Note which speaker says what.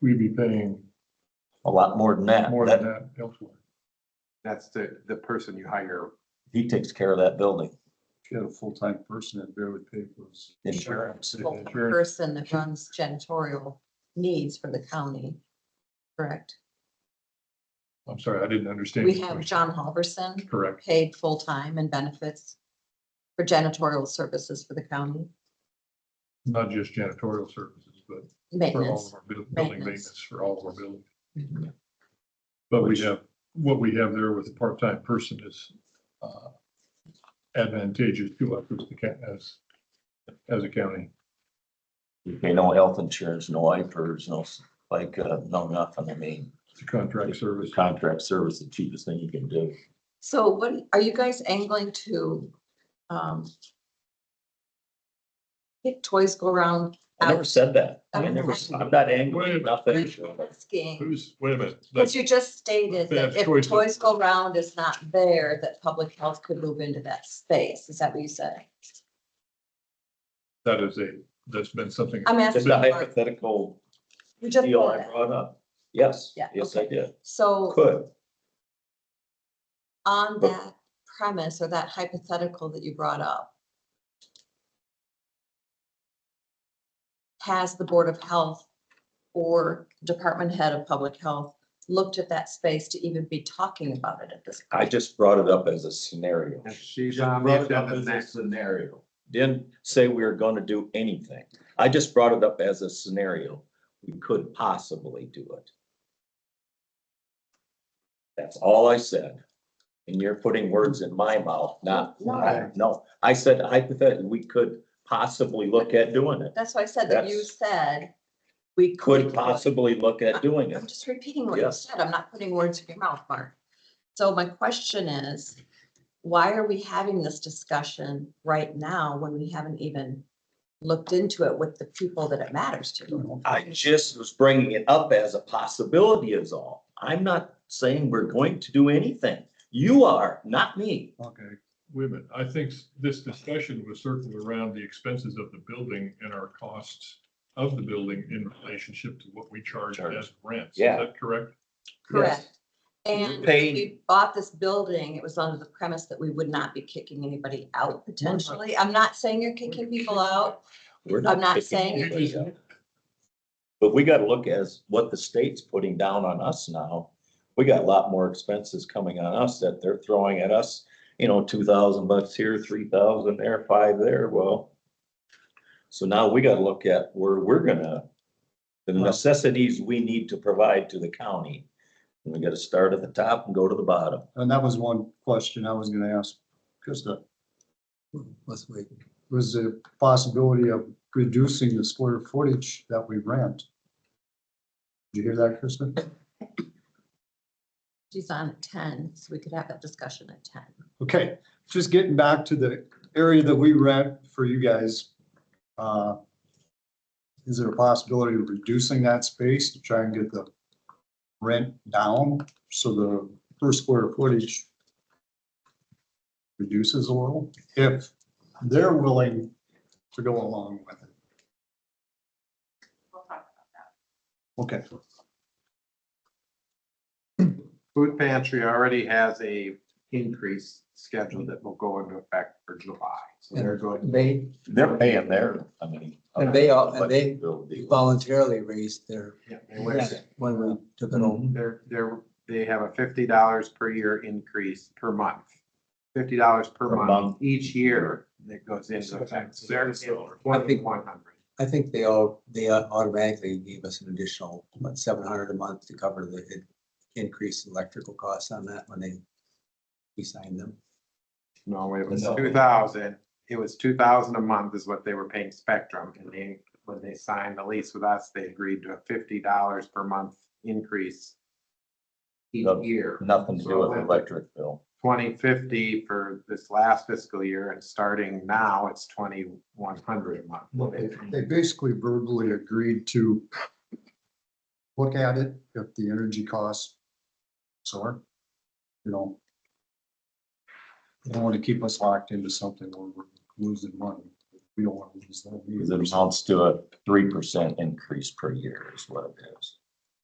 Speaker 1: we'd be paying
Speaker 2: a lot more than that.
Speaker 1: more than
Speaker 2: That,
Speaker 1: that elsewhere.
Speaker 3: That's the, the person you hire.
Speaker 2: he takes care of that building.
Speaker 1: If you had a full-time person, that bear would pay for his
Speaker 2: Insurance.
Speaker 1: Yeah,
Speaker 4: full-time
Speaker 1: sure.
Speaker 4: person that runs janitorial needs for the county, correct?
Speaker 1: I'm sorry, I didn't understand.
Speaker 4: We
Speaker 1: your
Speaker 4: have
Speaker 1: question.
Speaker 4: John Halverson
Speaker 1: Correct.
Speaker 4: paid full-time and benefits for janitorial services for the county,
Speaker 1: Not just janitorial services, but for all of
Speaker 4: maintenance.
Speaker 1: our buil- building
Speaker 4: Maintenance.
Speaker 1: maintenance, for all of our buildings.
Speaker 4: Mhm.
Speaker 1: But we
Speaker 2: Which-
Speaker 1: have, what we have there with a part-time person is uh, advantageous to us as the ca- as, as a county.
Speaker 2: You pay no health insurance, no IFRS, no, s- like, uh, no nothing. I mean,
Speaker 1: It's a contract service.
Speaker 2: the contract service, the cheapest thing you can do.
Speaker 4: So what, are you guys angling to, um, get toys go around
Speaker 2: I never said that. I never, I'm not angry
Speaker 1: Wait.
Speaker 2: about that.
Speaker 4: skiing?
Speaker 1: Who's, wait a minute.
Speaker 4: But you just stated
Speaker 1: They have
Speaker 4: that if
Speaker 1: choices.
Speaker 4: toys go round is not there, that public health could move into that space. Is that what you said?
Speaker 1: That is a, that's been something.
Speaker 4: I'm
Speaker 2: It's
Speaker 4: asking.
Speaker 2: a
Speaker 4: Mark.
Speaker 2: hypothetical
Speaker 4: You just
Speaker 2: deal
Speaker 4: brought
Speaker 2: I
Speaker 4: it.
Speaker 2: brought up. Yes,
Speaker 4: Yeah,
Speaker 2: yes, I did.
Speaker 4: So
Speaker 2: Could.
Speaker 4: on
Speaker 2: But-
Speaker 4: that premise or that hypothetical that you brought up, has the Board of Health or Department Head of Public Health looked at that space to even be talking about it at this?
Speaker 2: I just brought it up as a scenario.
Speaker 3: If she's
Speaker 2: Just
Speaker 3: on
Speaker 2: brought it
Speaker 3: the
Speaker 2: up as a
Speaker 3: agenda next.
Speaker 2: Scenario. Didn't say we were gonna do anything. I just brought it up as a scenario. We could possibly do it. That's all I said. And you're putting words in my mouth, not,
Speaker 4: No.
Speaker 2: no, I said hypothetically, we could possibly look at doing it.
Speaker 4: That's why I said that you
Speaker 2: That's-
Speaker 4: said we could.
Speaker 2: Could
Speaker 4: do it.
Speaker 2: possibly look at doing
Speaker 4: I'm
Speaker 2: it.
Speaker 4: just repeating what you
Speaker 2: Yes.
Speaker 4: said. I'm not putting words in your mouth, Mark. So my question is, why are we having this discussion right now when we haven't even looked into it with the people that it matters to?
Speaker 2: I just was bringing it up as a possibility is all. I'm not saying we're going to do anything. You are, not me.
Speaker 1: Okay, wait a minute. I think s- this discussion was circled around the expenses of the building and our costs of the building in relationship to what we charge
Speaker 2: Charge.
Speaker 1: as rents.
Speaker 2: Yeah.
Speaker 1: Is that correct?
Speaker 4: Correct.
Speaker 2: Yes.
Speaker 4: And
Speaker 2: We
Speaker 4: when
Speaker 2: paid-
Speaker 4: we bought this building, it was under the premise that we would not be kicking anybody out potentially. I'm not saying you're kicking people out.
Speaker 2: We're
Speaker 4: I'm not
Speaker 2: picking
Speaker 4: saying
Speaker 1: You
Speaker 2: anybody
Speaker 1: just-
Speaker 2: up. But we gotta look as what the state's putting down on us now. We got a lot more expenses coming on us that they're throwing at us, you know, two thousand bucks here, three thousand there, five there, well. So now we gotta look at where we're gonna, the necessities we need to provide to the county. And we gotta start at the top and go to the bottom.
Speaker 5: And that was one question I was gonna ask Krista. Last week. Was the possibility of reducing the square footage that we rent. Did you hear that, Krista?
Speaker 4: She's on at ten, so we could have that discussion at ten.
Speaker 5: Okay, just getting back to the area that we rent for you guys. uh, Is there a possibility of reducing that space to try and get the rent down so the per square footage reduces a little if they're willing to go along with it? Okay,
Speaker 3: Food pantry already has a increase scheduled that will go into effect for July. So they're going,
Speaker 6: They
Speaker 2: They're paying their, I mean.
Speaker 6: And they all- and they-
Speaker 2: Flexibility.
Speaker 6: voluntarily raised their,
Speaker 3: yeah, they went-
Speaker 6: rent when we took it over.
Speaker 3: they're, they're, they have a fifty dollars per year increase per month. Fifty dollars per
Speaker 2: Per
Speaker 3: month
Speaker 2: month.
Speaker 3: each year that goes into effect. So They're twenty-one hundred.
Speaker 6: I think they all, they automatically gave us an additional, what, seven hundred a month to cover the in- increased electrical costs on that when they we signed them.
Speaker 3: No, it was
Speaker 2: No.
Speaker 3: two thousand, it was two thousand a month is what they were paying Spectrum, and they, when they signed the lease with us, they agreed to a fifty dollars per month increase. Each
Speaker 2: No.
Speaker 3: year,
Speaker 2: Nothing to do with the electric bill.
Speaker 3: twenty fifty for this last fiscal year, and starting now, it's twenty-one hundred a
Speaker 5: well, they,
Speaker 3: month.
Speaker 5: they basically verbally agreed to look at it if the energy costs soar, you know. They don't want to keep us locked into something where we're losing money. We don't want to lose that.
Speaker 2: Because it
Speaker 5: either.
Speaker 2: amounts to a three percent increase per year is what it is.